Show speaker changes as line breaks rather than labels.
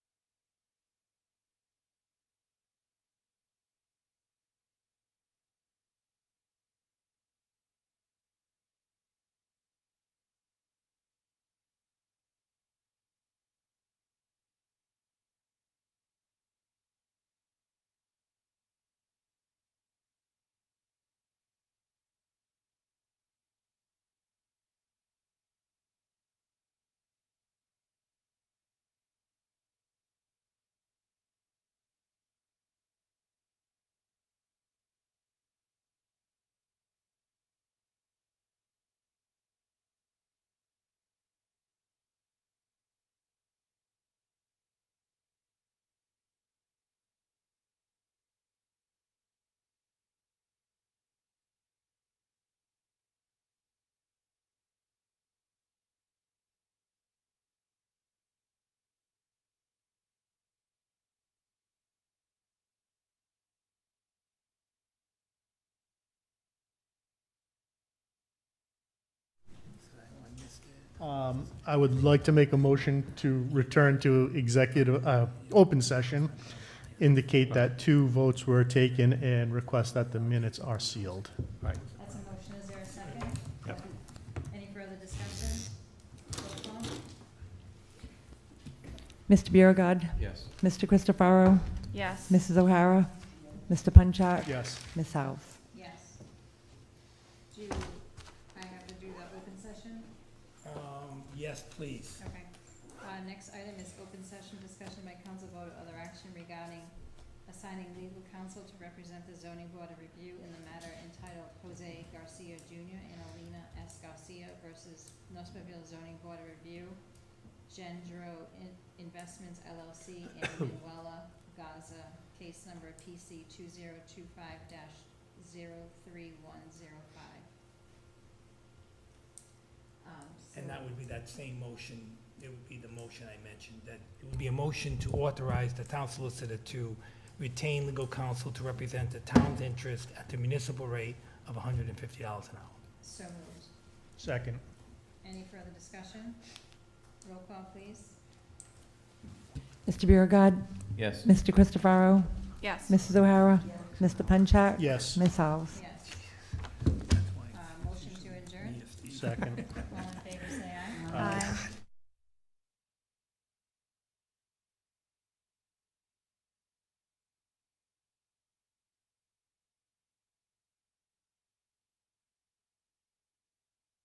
Um, I would like to make a motion to return to executive, uh, open session, indicate that two votes were taken and request that the minutes are sealed.
Right.
That's a motion, is there a second?
Yep.
Any further discussion? Roll call?
Mr. Biragad.
Yes.
Mr. Christopherow.
Yes.
Mrs. O'Hara. Mr. Punchak.
Yes.
Ms. House.
Yes. Do I have to do the open session?
Um, yes, please.
Okay. Uh, next item is open session discussion by council vote or other action regarding assigning legal counsel to represent the zoning board of review in the matter entitled Jose Garcia Junior and Alina S. Garcia versus Nosferville Zoning Board of Review, Gendro In- Investments LLC and Manuela Gaza, case number PC two zero two five dash zero three one zero five. Um, so.
And that would be that same motion, it would be the motion I mentioned, that it would be a motion to authorize the town solicitor to retain legal counsel to represent the town's interest at the municipal rate of hundred and fifty dollars an hour.
So moved.
Second.
Any further discussion? Roll call, please.
Mr. Biragad.
Yes.
Mr. Christopherow.
Yes.
Mrs. O'Hara. Mr. Punchak.
Yes.
Ms. House.
Yes.
That's why
Uh, motion to adjourn,
me, Steve.
Second.
all in